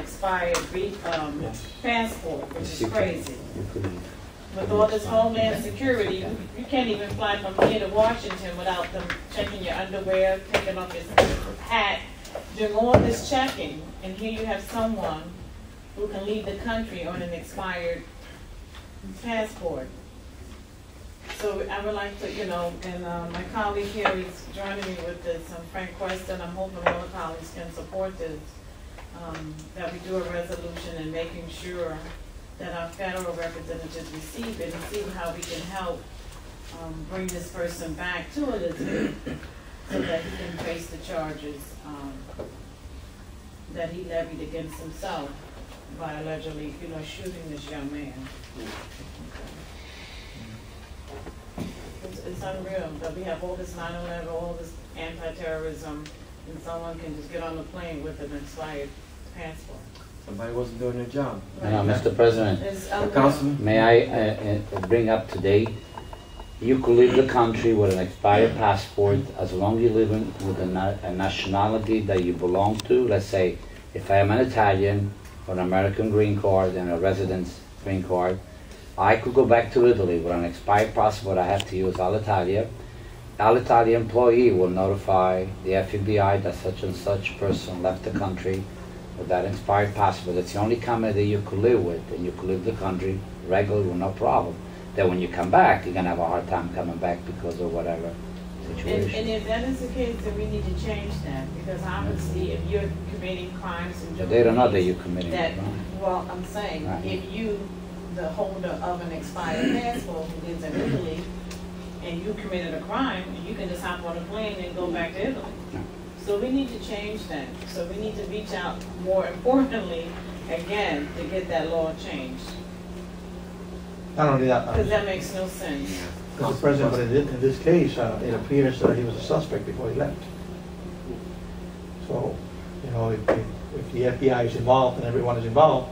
expired re- um, passport, which is crazy. With With all this homeland security, you you can't even fly from here to Washington without them checking your underwear, taking off his hat, doing all this checking. And here you have someone who can leave the country on an expired passport. So I would like to, you know, and uh, my colleague here is joining me with this, um, Frank Queston, I'm hoping all the colleagues can support this, um, that we do a resolution and making sure that our federal representatives receive it and see how we can help um, bring this person back to Elizabeth so that he can face the charges um, that he levied against himself by allegedly, you know, shooting this young man. It's, it's unreal that we have all this 9/11, all this anti-terrorism, and someone can just get on the plane with an expired passport. Somebody wasn't doing their job. Now, Mr. Uh, President, It's Uh, unreal. Councilman? may I uh, uh, bring up today, you could leave the country with an expired passport as long you live in with a na- a nationality that you belong to. Let's say, if I am an Italian or an American green card and a residence green card, I could go back to Italy with an expired passport I have to use Alitalia. Alitalia employee will notify the FBI that such and such person left the country with that expired passport. It's the only company that you could live with, and you could leave the country regularly with no problem. Then when you come back, you're gonna have a hard time coming back because of whatever And, and situation. if that is the case, then we need to change that, because obviously, if you're committing crimes and But doing. they don't know that things you're committing a that- crime. Well, I'm saying, Right. if you, the holder of an expired passport who lives in Italy, and you committed a crime, you can just hop on a plane and go back to Italy. Yeah. So we need to change that, so we need to reach out more importantly, again, to get that law changed, Not only that, uh, because that makes no sense. Mr. President, but in thi- in this case, uh, it appears that he was a suspect before he left. So, you know, if, if if the FBI is involved and everyone is involved,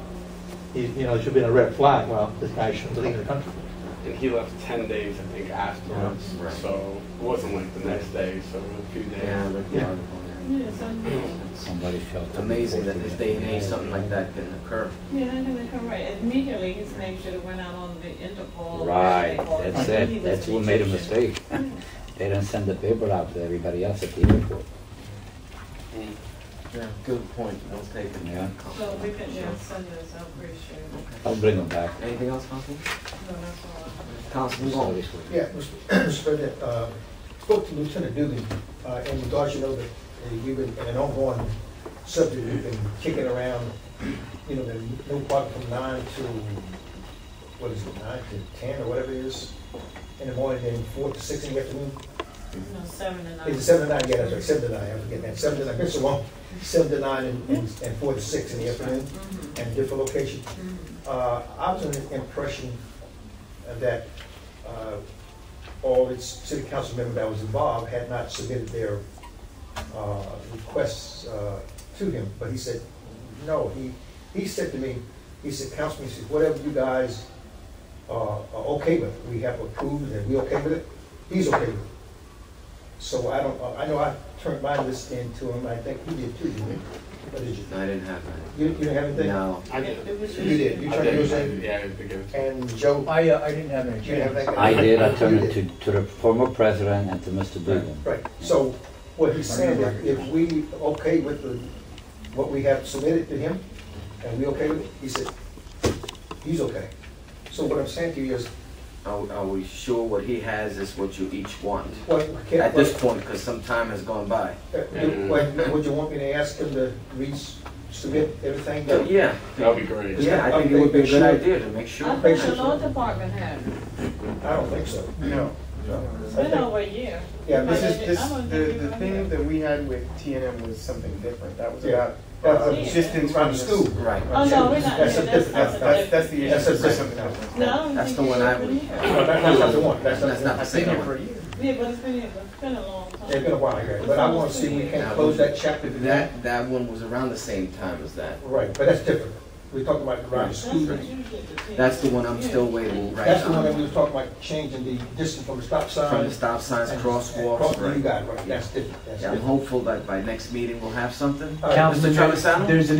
he- you know, it should be a red flag, well, this guy shouldn't leave the country. And he left ten days, I think, afterwards. Yeah, right. So it wasn't like the next day, so a few days. Yeah, I looked the Yeah. article Yeah, it's unreal. Somebody felt. amazing that this day and age something like that can occur. Yeah, I know, that's right. Immediately, his name should have went out on the Interpol. Right, They called that's him. He it, was that's who made a Egyptian. mistake. They didn't send the paper out to everybody else at the airport, Yeah, good point, well taken. yeah. So we can, yeah, send this, I'm pretty sure. I'll bring them back. Anything else, Councilman? No, that's all. Councilman Gomes? Yeah, Mr. President, uh, spoke to Lieutenant Dugan uh, in regards, you know, that uh, we've been, in an ongoing subject, we've been kicking around, you know, the no part from nine to, what is it, nine to ten or whatever it is, in the morning, then four to six in the afternoon. No, seven and nine. Is it seven to nine? Yeah, that's right, seven to nine, I'm forgetting that, seven to nine, it's so long. Seven to nine and, and and four to six in the afternoon, Mhm, and different location. mhm. Uh, I was under the impression that uh, all its city council members that was involved had not submitted their uh, requests uh, to him, but he said, no, he, he said to me, he said, Councilman, he said, whatever you guys uh, are okay with, we have approved and we okay with it, he's okay with it. So I don't, I know I turned my list in to him, I think he did too, didn't he? Or did you? No, I didn't have You you didn't have that. anything? No. I It did. it was You just- did, you I turned did. yours in? Yeah, I did give it to him. And Joe, I, uh, I didn't have any you have that guy? I did, I turned it to, to the former president and to Mr. Dugan. Right, so what he's saying, if, if we okay with the, what we have submitted to him, and we okay with it, he said, he's okay. So what I'm saying to you is, Are, are we sure what he has is what you each want? what, can At this point, because some time has gone by. What, would you want me to ask him to resubmit everything? But yeah, That'd be great. yeah, I think it would be a good idea to make sure. I thought the law department had, it. I don't think so. No. it's been over a year. Yeah, This is, I this, don't the, think the you thing remember. that we had with TNM was something different. That was Yeah. about uh, That's a- distance From from the the school. Right. Oh, no, we're not, That's yeah, a that's different- That's, not that's, the, that's the That's issue a- for something else. no, I don't That's think the you one I should would. believe it. No, that's not the one, that's not That's the not one. the I've been same here one. for a year. Yeah, but it's been, it's been a long time. It's been a while, I guess, but I wanna see if we can close that chapter to that. That, that one was around the same time as that. Right, but that's different. We're talking about around That's the school. what you did to take. That's the one I'm still waiting right That's the one that on. we was talking about, changing the distance from the stop sign. From the stop signs, And- crosswalks, cross- You right? got it, right, that's different, that's Yeah, I'm different. hopeful that by next meeting we'll have something. All right, Mr. Travisano? There's an